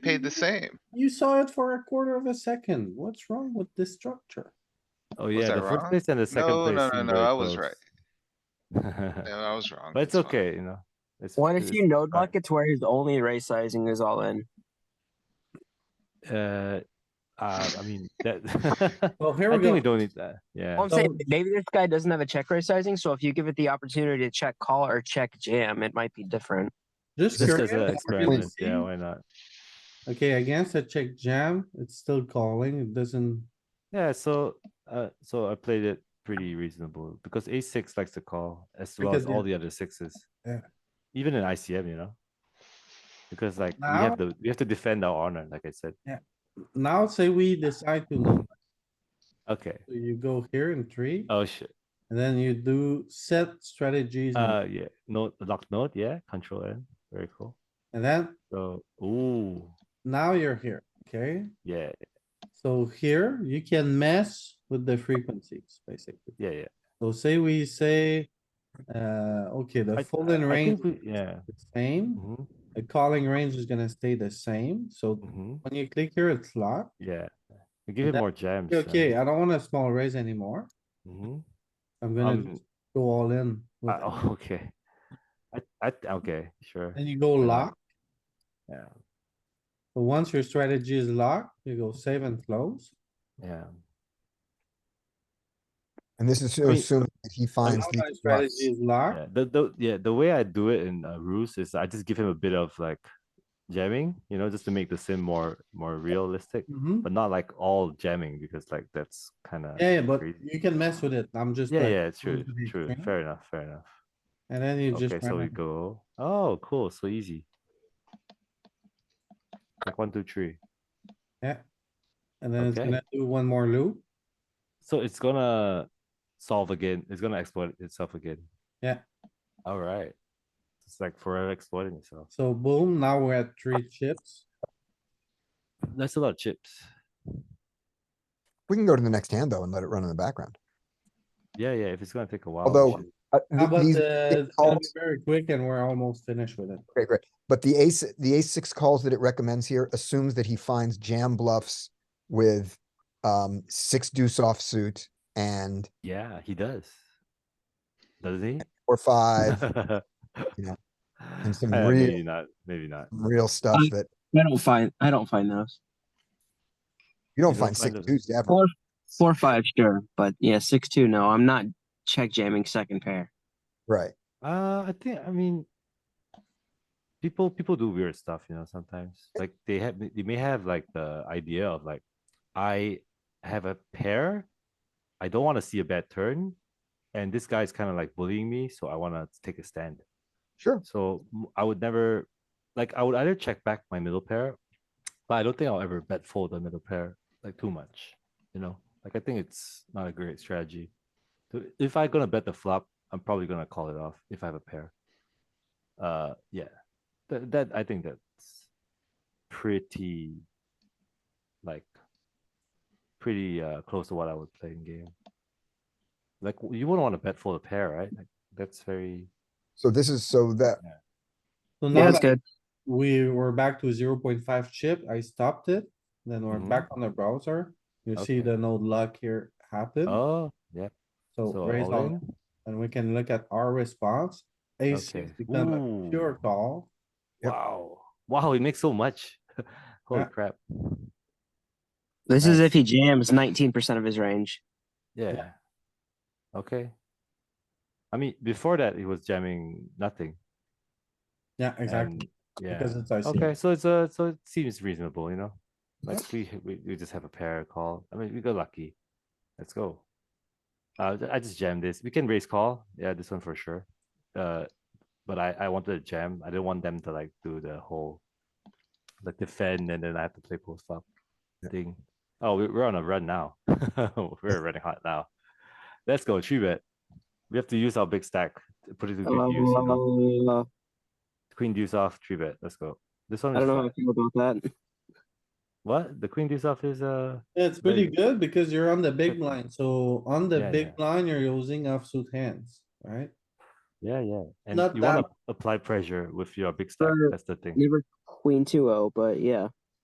paid the same. You saw it for a quarter of a second. What's wrong with this structure? Oh yeah, I the first wrong? place and the second No, place. no, no, seem no, very I was close. No, I was wrong. But it's fine. okay, you know. It's What if it's- you node fine. buckets where his only raise sizing is all in? Uh, uh, I mean, that. Well, here I we think we go. don't need that, yeah. Well, I'm saying So- maybe this guy doesn't have a check raise sizing, so if you give it the opportunity to check call or check jam, it might be different. Just Just as curious. an Are you experiment, yeah, seeing- why not? Okay, against a check jam, it's still calling. It doesn't, Yeah, so, uh, so I played it pretty reasonable because ace six likes to call as well Because as the- all the other sixes. Yeah. Even in ICM, you know? Because like, we have to, we have to defend our honor, like I said. now say we decide to, look. Okay, So you go here in three, oh shit, and then you do set strategies, and- uh, yeah, note, lock note, yeah, control N, very cool. and then So, ooh, now you're here, okay? yeah, So here, you can mess with the frequencies, basically. yeah, yeah. So say we say, uh, okay, the I- folding I range think is we- Yeah. the same, mhm, the calling range is gonna stay the same, so mhm, when you click here, it's locked. Yeah, We give it that- more jams. uh, Okay, I don't want a small raise anymore, mhm. I'm gonna Um, just go all in. with I- it. oh, Okay. I, I, okay, sure, Then you go I know. lock, yeah, but once your strategy is locked, you go save and close. yeah. And this is mean, assuming that he And finds now the my Strategy is locked, Yeah, the, the, yeah, the way I do it in uh, Ruse is I just give him a bit of like jamming, you know, just to make the sim more, more realistic, Mhm. but not like all jamming because like that's kind of. yeah, yeah, but you can mess with it, I'm just. Yeah, like, yeah, true, going to the true, extreme, fair enough, fair enough. And then you just. Okay, so we run it. go, oh, cool, so easy. Like one, two, three. And then it's okay. gonna do one more loop, So it's gonna solve again, it's gonna exploit itself again. Yeah. Alright. It's like forever exploiting itself. so boom, now we're at three chips. That's a lot of chips. we can go to the next hand though and let it run in the background. Yeah, yeah, if it's gonna take a while. Although, sure. Uh, How th- about these- the, it's gonna be calls- very quick and we're almost finished with it. okay, great. But the ace, the ace six calls that it recommends here assumes that he finds jam bluffs with um six deuce offsuit and Yeah, he does. Does he? or five, you know, And some real- Uh, Maybe not, maybe not. real stuff that I don't find I don't find those. you don't You don't find find six those. deuce ever. Four four five, sure. But yeah, six two, no. I'm not check jamming second pair. Right. Uh, I think, I mean. People, people do weird stuff, you know, sometimes, like they have, they may have like the idea of like, I have a pair. I don't wanna see a bad turn, and this guy's kinda like bullying me, so I wanna take a stand. Sure. So m- I would never, like, I would either check back my middle pair, but I don't think I'll ever bet fold the middle pair like too much. You know, like I think it's not a great strategy. So If I'm gonna bet the flop, I'm probably gonna call it off if I have a pair. Uh, yeah, that, that I think that's pretty, like, pretty uh close to what I would play in game. Like w- you wouldn't want to bet fold a pair, right? Like, that's very So this is so that So Yeah, now that's that good. we were back to zero point five chip, I stopped it, then we're Mhm. back on the browser. You see Okay. the no luck here happen, oh yeah. so So raise all on, in? and we can look at our response. Ace Okay. six become a Ooh. pure call. Yep. Wow. Wow, he makes so much. Holy Yeah. crap. This is Nice. if he jams nineteen percent of his range. Yeah. Okay. I mean, before that, he was jamming nothing. Yeah, exactly, and- Yeah. because it's ICM. Okay, so it's a, so it seems reasonable, you know? Like we, we, we just have a pair call. I mean, we got lucky. Let's go. Uh, I just jammed this. We can raise call. Yeah, this one for sure. Uh, but I, I wanted to jam. I didn't want them to like do the whole, like defend and then I have to play post flop Yeah. thing. Oh, we- we're on a run now. We're running hot now. Let's go, three bet. We have to use our big stack, to put it to good use, you know? Uh, Queen deuce off, three bet. Let's go. This one I is don't know fine. how I feel about that. What? The queen deuce off is uh Yeah, It's pretty Very- good because you're on the big line, so on the Yeah, big line, you're using offsuit hands, right? yeah, yeah. And Not you wanna apply pressure with your big stack. Sure. That's the thing. Never queen two oh, but yeah.